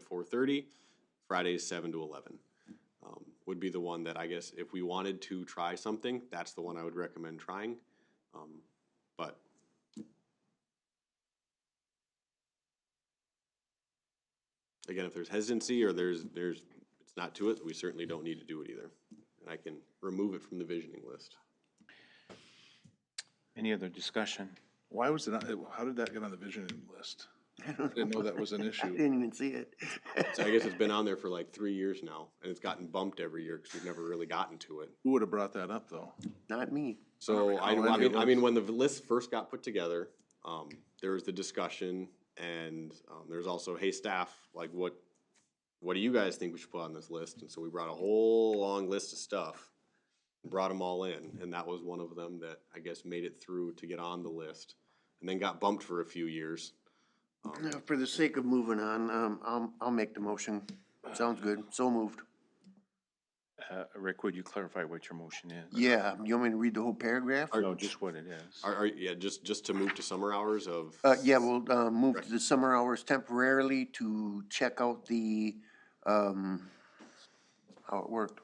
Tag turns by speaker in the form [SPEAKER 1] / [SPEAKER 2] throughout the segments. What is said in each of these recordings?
[SPEAKER 1] four thirty, Fridays seven to eleven. Um, would be the one that I guess if we wanted to try something, that's the one I would recommend trying. Um, but again, if there's hesitancy or there's, there's, it's not to it, we certainly don't need to do it either. And I can remove it from the visioning list.
[SPEAKER 2] Any other discussion?
[SPEAKER 3] Why was it, not- how did that get on the visioning list? I didn't know that was an
[SPEAKER 4] I
[SPEAKER 3] issue.
[SPEAKER 4] didn't even see it.
[SPEAKER 1] So I guess it's been on there for like three years now, and it's gotten bumped every year because we've never really gotten to it.
[SPEAKER 3] Who would have brought that up, though?
[SPEAKER 4] Not me.
[SPEAKER 1] So I,
[SPEAKER 3] recall
[SPEAKER 1] I
[SPEAKER 3] any of
[SPEAKER 1] mean, I
[SPEAKER 3] those.
[SPEAKER 1] mean, when the list first got put together, um, there was the discussion, and um, there's also, hey, staff, like what, what do you guys think we should put on this list? And so we brought a whole long list of stuff, and brought them all in, and that was one of them that I guess made it through to get on the list, and then got bumped for a few years. Um,
[SPEAKER 4] Now, For the sake of moving on, um, I'll, I'll make the motion. Sounds good. So moved.
[SPEAKER 2] Uh, Rick, would you clarify what your motion is?
[SPEAKER 4] Yeah, you want me to read the whole paragraph?
[SPEAKER 2] No, just what it is.
[SPEAKER 1] Are, are, yeah, just, just to move to summer hours of.
[SPEAKER 4] Uh, yeah, we'll, uh, move to the summer hours temporarily to check out the, um, how it worked.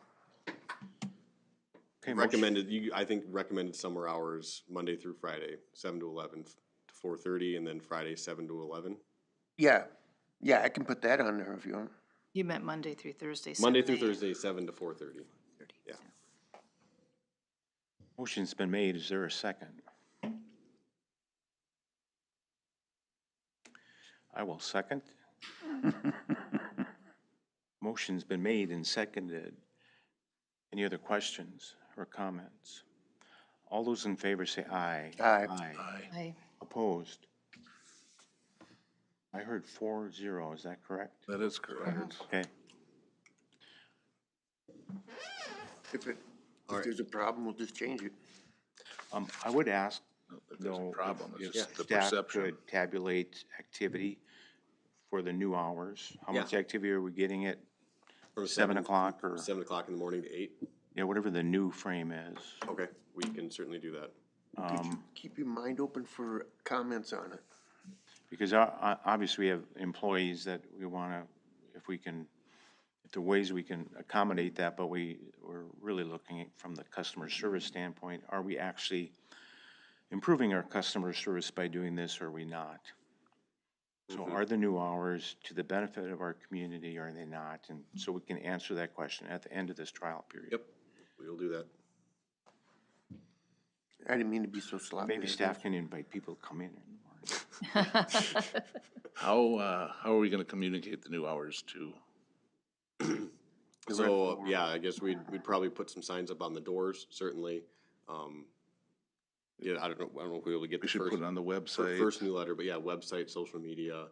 [SPEAKER 2] Okay, motion-
[SPEAKER 1] Recommended, you, I think recommended summer hours, Monday through Friday, seven to eleven to four thirty, and then Friday, seven to eleven.
[SPEAKER 4] Yeah, yeah, I can put that on there if you want.
[SPEAKER 5] You meant Monday through Thursday.
[SPEAKER 1] Monday
[SPEAKER 5] 7
[SPEAKER 1] through
[SPEAKER 5] a.m.
[SPEAKER 1] Thursday, seven to four thirty. Yeah.
[SPEAKER 2] Motion's been made. Is there a second? I will second. Motion's been made and seconded. Any other questions or comments? All those in favor say aye.
[SPEAKER 4] Aye.
[SPEAKER 2] Aye.
[SPEAKER 5] Aye.
[SPEAKER 2] Opposed? I heard four zero. Is that correct?
[SPEAKER 3] That is correct.
[SPEAKER 2] Okay.
[SPEAKER 4] If it,
[SPEAKER 1] All
[SPEAKER 4] if
[SPEAKER 1] right.
[SPEAKER 4] there's a problem, we'll just change it.
[SPEAKER 2] Um, I would ask,
[SPEAKER 3] If There's a
[SPEAKER 2] though,
[SPEAKER 3] problem,
[SPEAKER 2] if
[SPEAKER 3] it's just the
[SPEAKER 2] staff
[SPEAKER 3] perception.
[SPEAKER 2] could tabulate activity for the new hours. How
[SPEAKER 1] Yeah.
[SPEAKER 2] much activity are we getting at
[SPEAKER 1] Or
[SPEAKER 2] seven o'clock or,
[SPEAKER 1] Seven o'clock in the morning to eight.
[SPEAKER 2] yeah, whatever the new frame is?
[SPEAKER 1] Okay, we can certainly do that.
[SPEAKER 2] Um,
[SPEAKER 4] Keep your mind open for comments on it.
[SPEAKER 2] because I, I, obviously we have employees that we wanna, if we can, if there are ways we can accommodate that, but we, we're really looking at from the customer service standpoint, are we actually improving our customer service by doing this or are we not? So are the new hours to the benefit of our community, are they not? And so we can answer that question at the end of this trial period.
[SPEAKER 1] Yep, we will do that.
[SPEAKER 4] I didn't mean to be so sloppy.
[SPEAKER 2] Maybe staff can invite people to come in. in the morning.
[SPEAKER 3] How, uh, how are we gonna communicate the new hours to?
[SPEAKER 1] So, uh, yeah, I guess we'd, we'd probably put some signs up on the doors, certainly. Um, yeah, I don't know, I don't know if we'll be able to get
[SPEAKER 3] We
[SPEAKER 1] the
[SPEAKER 3] should
[SPEAKER 1] first.
[SPEAKER 3] put it on the
[SPEAKER 1] fir-
[SPEAKER 3] website.
[SPEAKER 1] First newsletter, but yeah, website, social media,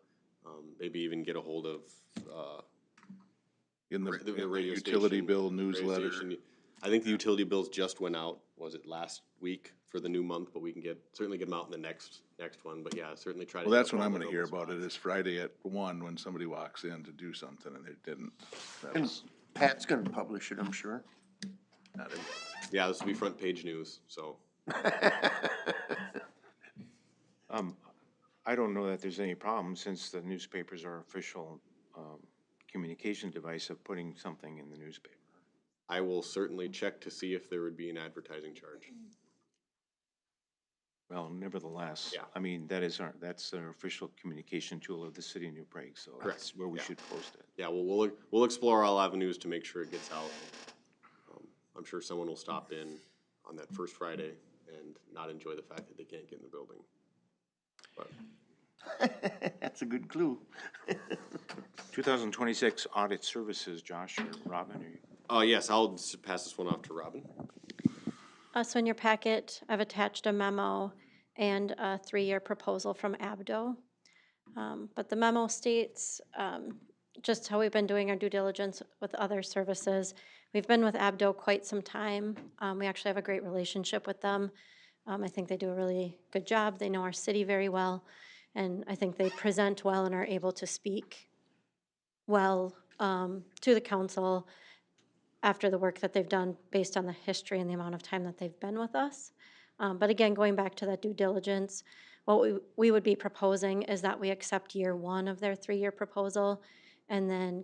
[SPEAKER 1] um, maybe even get a hold of, uh,
[SPEAKER 3] In the,
[SPEAKER 1] ra- the
[SPEAKER 3] in the
[SPEAKER 1] radio
[SPEAKER 3] utility
[SPEAKER 1] station,
[SPEAKER 3] bill
[SPEAKER 1] radio
[SPEAKER 3] newsletter.
[SPEAKER 1] station. I think the utility bills just went out, was it last week for the new month, but we can get, certainly get them out in the next, next one, but yeah, certainly try to.
[SPEAKER 3] Well,
[SPEAKER 1] get
[SPEAKER 3] that's
[SPEAKER 1] them
[SPEAKER 3] when
[SPEAKER 1] out
[SPEAKER 3] I'm
[SPEAKER 1] in
[SPEAKER 3] gonna
[SPEAKER 1] the
[SPEAKER 3] hear
[SPEAKER 1] open
[SPEAKER 3] about it,
[SPEAKER 1] spots.
[SPEAKER 3] is Friday at one, when somebody walks in to do something and they didn't. That's
[SPEAKER 4] Pat's gonna publish it, I'm sure.
[SPEAKER 3] not it.
[SPEAKER 1] Yeah, this will be front page news, so.
[SPEAKER 2] Um, I don't know that there's any problem since the newspapers are official, um, communication device of putting something in the newspaper.
[SPEAKER 1] I will certainly check to see if there would be an advertising charge.
[SPEAKER 2] Well, nevertheless,
[SPEAKER 1] Yeah.
[SPEAKER 2] I mean, that is our, that's our official communication tool of the city of New Prague, so that's where we
[SPEAKER 1] yeah.
[SPEAKER 2] should post it.
[SPEAKER 1] Yeah, well, we'll, we'll explore all avenues to make sure it gets out. Um, I'm sure someone will stop in on that first Friday and not enjoy the fact that they can't get in the building. But
[SPEAKER 4] That's a good clue.
[SPEAKER 2] 2026 Audit Services, Josh or Robin, are you?
[SPEAKER 1] Uh, yes, I'll s- pass this one off to Robin.
[SPEAKER 6] Also in your packet, I've attached a memo and a three-year proposal from ABDO. Um, But the memo states um, just how we've been doing our due diligence with other services. We've been with ABDO quite some time. Um, We actually have a great relationship with them. Um, I think they do a really good job. They know our city very well. And I think they present well and are able to speak well um, to the council after the work that they've done based on the history and the amount of time that they've been with us. Um, but again, going back to that due diligence, what we, we would be proposing is that we accept year one of their three-year proposal And then